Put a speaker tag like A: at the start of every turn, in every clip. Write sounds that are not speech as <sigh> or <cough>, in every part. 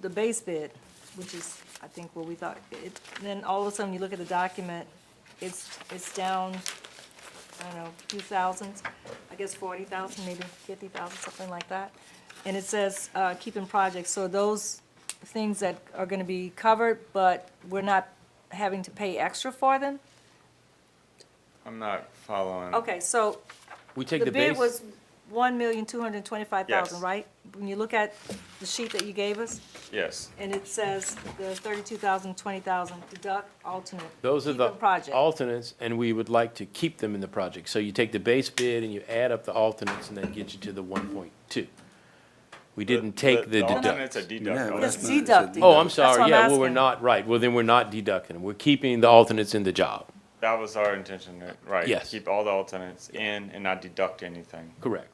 A: the base bid, which is, I think, what we thought, it, then all of a sudden, you look at the document, it's, it's down, I don't know, few thousands, I guess forty thousand, maybe fifty thousand, something like that. And it says, uh, keeping projects, so those things that are gonna be covered, but we're not having to pay extra for them?
B: I'm not following.
A: Okay, so
C: We take
A: the
C: the
A: bid
C: base,
A: was one million, two hundred and twenty-five thousand,
B: Yes.
A: right? When you look at the sheet that you gave us,
B: Yes,
A: and it says the thirty-two thousand, twenty thousand, deduct alternate.
C: those are
A: keep
C: the
A: in Project.
C: alternates, and we would like to keep them in the project. So you take the base bid and you add up the alternates, and that gets you to the one point two. We didn't take the
B: alternate's a
C: deduct.
B: deduct.
D: No,
B: oh,
A: It's
D: that's
B: that's-
D: not- it's a
A: deducting.
C: Oh, I'm
A: That's what
C: sorry,
A: I'm
C: yeah, well, we're
A: asking.
C: not, right, well, then we're not deducting them. We're keeping the alternates in the job,
B: That was our intention, to- right?
C: Yes.
B: Keep all the alternates in and not deduct anything.
C: correct.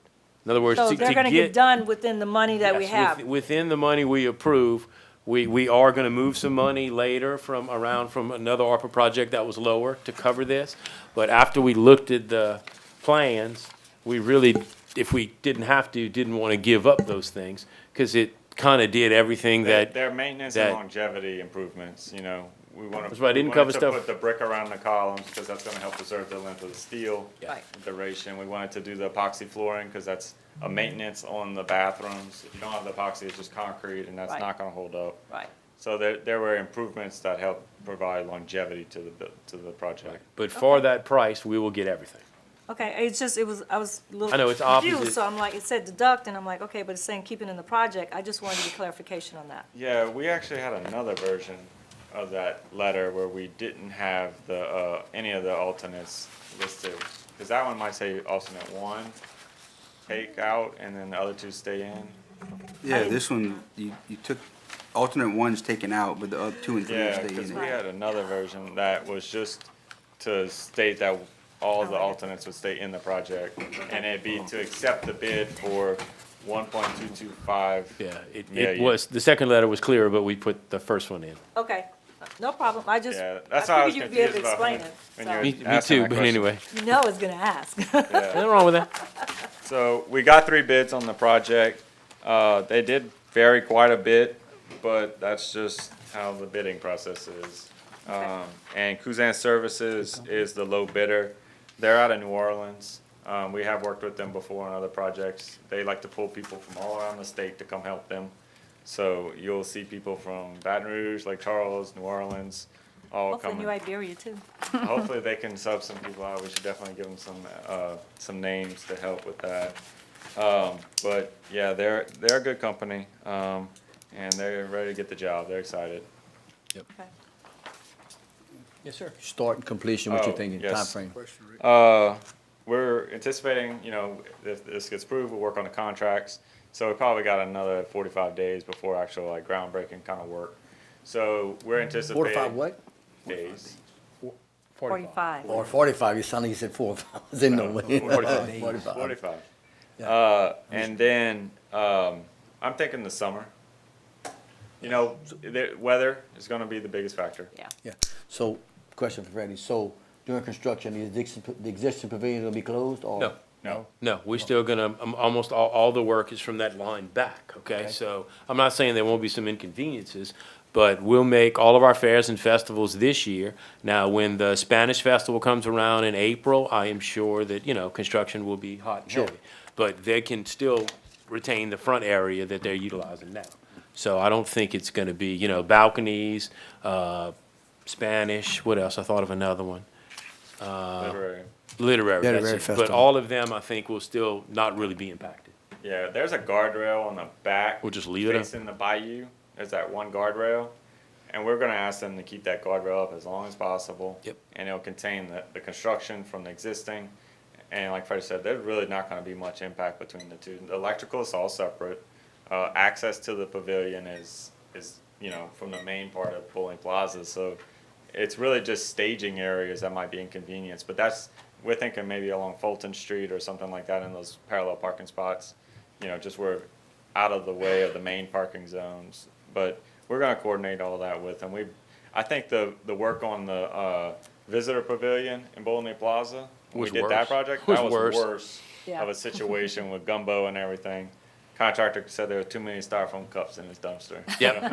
C: In other words, to
A: So
C: to get.
A: they're gonna get done within the money that we
C: Yes,
A: have.
C: with- Within the money we approve, we, we are gonna move some money later from, around from another ARPA project that was lower to cover this. But after we looked at the plans, we really, if we didn't have to, didn't wanna give up those things, cause it kinda did everything
B: Their-
C: that,
B: Their maintenance and
C: that-
B: longevity improvements, you know, we wanna.
C: That's why I
B: we
C: didn't
B: wanted
C: cover
B: to
C: stuff-
B: Put the brick around the columns, because that's gonna help preserve the length of the steel.
C: Yeah.
A: Right.
B: Duration, we wanted to do the epoxy flooring, because that's a maintenance on the bathrooms. If you don't have the epoxy, it's just concrete, and that's
A: Right.
B: not gonna hold up.
A: Right.
B: So there, there were improvements that helped provide longevity to the, bu- to the project.
C: but for that price, we will get everything.
A: Okay, it's just, it was, I was a little.
C: I know, it's
A: confused,
C: opposite.
A: So I'm like, it said deduct, and I'm like, okay, but it's saying keep it in the project. I just wanted to get clarification on that.
B: Yeah, we actually had another version of that letter where we didn't have the, uh, any of the alternates listed. Cause that one might say alternate one, take out, and then the other two stay in.
D: Yeah, this one, you, you took, alternate one's taken out, but the other two and three
B: Yeah,
D: stay
B: cause
D: in
B: we
D: it.
B: had another version that was just to state that all the alternates would stay in the project. And it'd be to accept the bid for one point two two five.
C: Yeah, it,
B: Yeah,
C: it
B: you-
C: was, the second letter was clearer, but we put the first one in.
A: Okay, no problem. I just,
B: Yeah,
A: I
B: that's how I was
A: figured you'd be able
B: confused
A: to
B: about
A: explain it.
B: when, when
A: so-
B: you're
C: Me, me
B: asking
C: too,
B: that
C: but
B: question.
C: anyway,
A: You know I was gonna ask. <laughs>
B: Yeah.
C: nothing wrong with that.
B: So we got three bids on the project. Uh, they did vary quite a bit, but that's just how the bidding process is. Um, and Kuzan Services is the low bidder. They're out of New Orleans. Um, we have worked with them before on other projects. They like to pull people from all around the state to come help them. So you'll see people from Baton Rouge, Lake Charles, New Orleans, all
A: Hopefully
B: coming.
A: New Iberia too.
B: Hopefully they can sub some people out. We should definitely give them some, uh, some names to help with that. Um, but yeah, they're, they're a good company, um, and they're ready to get the job. They're excited.
A: Okay.
C: Yes, sir.
E: Start and completion, what
B: Oh,
E: you thinking,
B: yes.
E: timeframe?
B: Uh, we're anticipating, you know, if this gets approved, we'll work on the contracts. So we probably got another forty-five days before actual like groundbreaking kind of work. So we're anticipating.
E: Four to five what?
B: Days.
A: Forty-five.
E: Or forty-five, you sounded like you said four, I was in the way. <laughs>
B: Forty-five. Forty-five. Uh, and then, um, I'm thinking the summer. You know, the weather is gonna be the biggest factor.
A: Yeah.
E: Yeah, so, question for Freddie, so during construction, the existing, the existing pavilion will be closed or?
C: No.
B: No,
C: No, we're still gonna, um, almost all, all the work is from that line back, okay? So I'm not saying there won't be some inconveniences, but we'll make all of our fairs and festivals this year. Now, when the Spanish Festival comes around in April, I am sure that, you know, construction will be hot and
E: Sure.
C: heavy. But they can still retain the front area that they're utilizing now. So I don't think it's gonna be, you know, balconies, uh, Spanish, what else? I thought of another one Uh.
B: literary.
C: literary, that's
E: Literary
C: it. But
E: festival.
C: all of them, I think, will still not really be impacted.
B: Yeah, there's a guardrail on the back.
C: We'll just leave it up.
B: Facing the bayou, there's that one guardrail, and we're gonna ask them to keep that guardrail up as long as possible.
C: Yep.
B: And it'll contain the, the construction from the existing, and like Freddie said, there's really not gonna be much impact between the two. The electrical is all separate, uh, access to the pavilion is, is, you know, from the main part of Bowling Plaza, so it's really just staging areas that might be inconvenienced, but that's, we're thinking maybe along Fulton Street or something like that in those parallel parking spots. You know, just where, out of the way of the main parking zones, but we're gonna coordinate all that with them. We, I think the, the work on the, uh, visitor pavilion in Bowling Plaza, when we
C: Was
B: did
C: worse.
B: that project,
C: Was
B: that was
C: worse.
B: worse
A: Yeah.
B: of a situation with gumbo and everything. Contractor said there were too many styrofoam cups in his dumpster.
C: Yep.